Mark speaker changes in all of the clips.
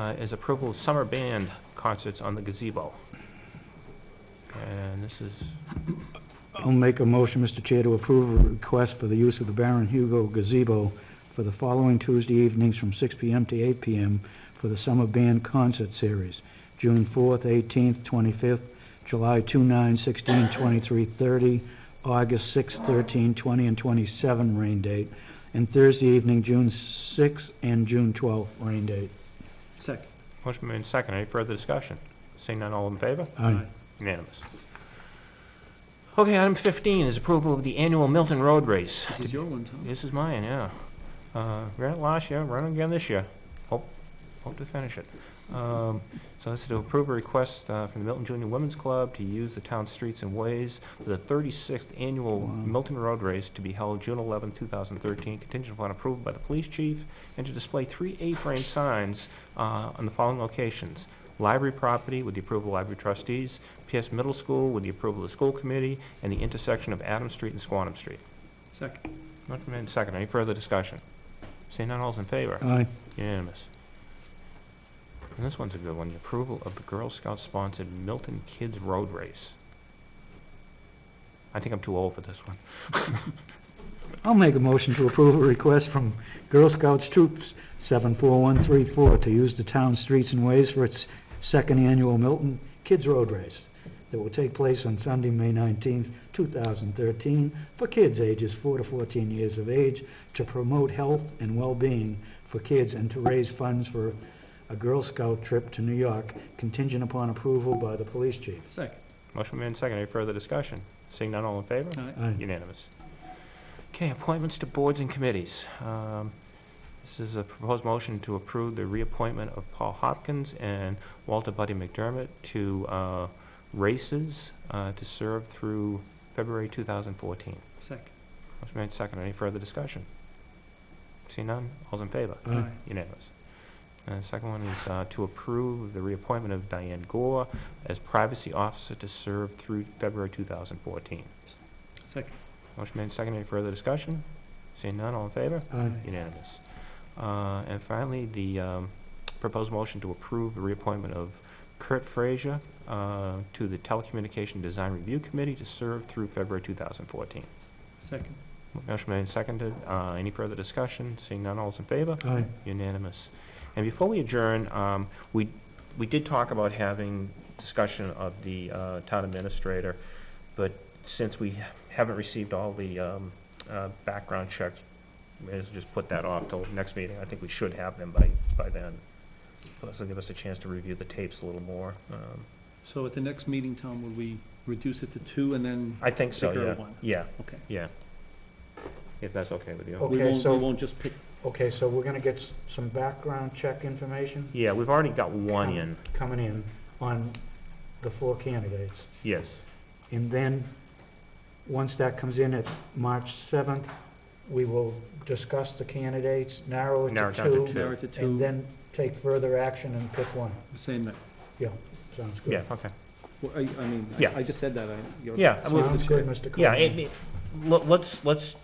Speaker 1: uh, is approval of summer band concerts on the gazebo. And this is,
Speaker 2: I'll make a motion, Mr. Chair, to approve a request for the use of the Baron Hugo gazebo for the following Tuesday evenings from 6 PM to 8 PM for the Summer Band Concert Series, June 4th, 18th, 25th, July 2, 9, 16, 23, 30, August 6, 13, 20, and 27, rain date, and Thursday evening, June 6th and June 12th, rain date.
Speaker 3: Second.
Speaker 1: motion made in second. Any further discussion? Seeing none, all in favor?
Speaker 2: Aye.
Speaker 1: Unanimous. Okay, item 15 is approval of the annual Milton Road Race.
Speaker 3: This is your one, Tom.
Speaker 1: This is mine, yeah. Uh, Ran it last year, run it again this year. Hope, hope to finish it. Um, So that's to approve a request uh, from the Milton Junior Women's Club to use the town's streets and ways for the 36th Annual
Speaker 2: Wow.
Speaker 1: Milton Road Race to be held June 11, 2013, contingent upon approval by the police chief, and to display three A-frame signs uh, on the following locations. Library property with the approval of library trustees, PS Middle School with the approval of the school committee, and the intersection of Adams Street and Squantum Street.
Speaker 3: Second.
Speaker 1: Motion made and seconded. Any further discussion? Seeing none, all's in favor?
Speaker 2: Aye.
Speaker 1: Unanimous. And this one's a good one, the approval of the Girl Scout-sponsored Milton Kids Road Race. I think I'm too old for this one.
Speaker 2: I'll make a motion to approve a request from Girl Scouts Troops 74134 to use the town streets and ways for its second annual Milton Kids Road Race that will take place on Sunday, May 19th, 2013, for kids ages 4 to 14 years of age to promote health and well-being for kids and to raise funds for a Girl Scout trip to New York contingent upon approval by the police chief.
Speaker 3: Second.
Speaker 1: Motion made and seconded. Any further discussion? Seeing none, all in favor?
Speaker 3: Aye.
Speaker 2: Aye.
Speaker 1: Unanimous. Okay, appointments to boards and committees. Um, This is a proposed motion to approve the reappointment of Paul Hopkins and Walter Buddy McDermott to uh, races uh, to serve through February 2014.
Speaker 3: Second.
Speaker 1: Motion made second. Any further discussion? See none? All's in favor?
Speaker 2: Aye.
Speaker 1: Unanimous. And the second one is uh, to approve the reappointment of Diane Gore as privacy officer to serve through February 2014.
Speaker 3: Second.
Speaker 1: Motion made second. Any further discussion? Seeing none, all in favor?
Speaker 2: Aye.
Speaker 1: Unanimous. Uh, And finally, the um, proposed motion to approve the reappointment of Kurt Frazier uh, to the Telecommunication Design Review Committee to serve through February 2014.
Speaker 3: Second.
Speaker 1: Motion made and seconded. Uh, Any further discussion? Seeing none, all's in favor?
Speaker 2: Aye.
Speaker 1: Unanimous. And before we adjourn, um, we, we did talk about having discussion of the uh, town administrator, but since we haven't received all the um, uh, background checks, may as well just put that off till next meeting. I think we should have them by, by then. Plus, it'll give us a chance to review the tapes a little more. Um,
Speaker 3: So at the next meeting, Tom, would we reduce it to two and then,
Speaker 1: I think so,
Speaker 3: Pick her
Speaker 1: yeah.
Speaker 3: one.
Speaker 1: Yeah,
Speaker 3: okay.
Speaker 1: yeah. If that's okay with you.
Speaker 2: Okay,
Speaker 3: We won't, we
Speaker 2: so-
Speaker 3: won't just pick,
Speaker 2: Okay, so we're going to get s- some background check information?
Speaker 1: Yeah, we've already got one in,
Speaker 2: coming in on the four candidates.
Speaker 1: yes.
Speaker 2: And then, once that comes in at March 7th, we will discuss the candidates, narrow it
Speaker 1: Narrow it
Speaker 2: to
Speaker 1: down to
Speaker 2: two,
Speaker 1: two.
Speaker 3: narrow it to
Speaker 2: and
Speaker 3: two,
Speaker 2: then take further action and pick one.
Speaker 3: the same night.
Speaker 2: Sounds
Speaker 1: Yeah,
Speaker 2: good.
Speaker 1: okay.
Speaker 3: Well, I, I mean,
Speaker 1: Yeah.
Speaker 3: I- I just said that, I. you're-
Speaker 1: Yeah, I mean,
Speaker 2: Sounds good, Mr.
Speaker 1: Yeah, it,
Speaker 2: Coleman.
Speaker 1: it- let- let's, let's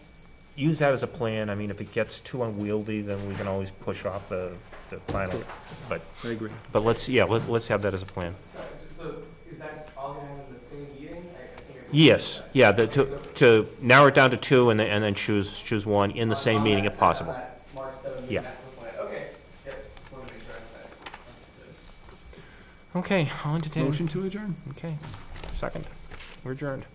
Speaker 1: use that as a plan. I mean, if it gets too unwieldy, then we can always push off the, the final.
Speaker 3: I agree.
Speaker 1: But let's, yeah, let's, let's have that as a plan.
Speaker 4: Sorry, so is that all going to happen in the same meeting? I- I think I-
Speaker 1: Yes, yeah, the, to, to narrow it down to two and then, and then choose, choose one in the
Speaker 4: On-
Speaker 1: same
Speaker 4: on
Speaker 1: meeting
Speaker 4: that
Speaker 1: if
Speaker 4: set-
Speaker 1: possible.
Speaker 4: on that March 7th,
Speaker 1: Yeah.
Speaker 4: that's the plan. Okay, yep, want to make sure I have that. Understood.
Speaker 1: Okay, I'll entertain.
Speaker 3: Motion to adjourn?
Speaker 1: Okay, second. We're adjourned.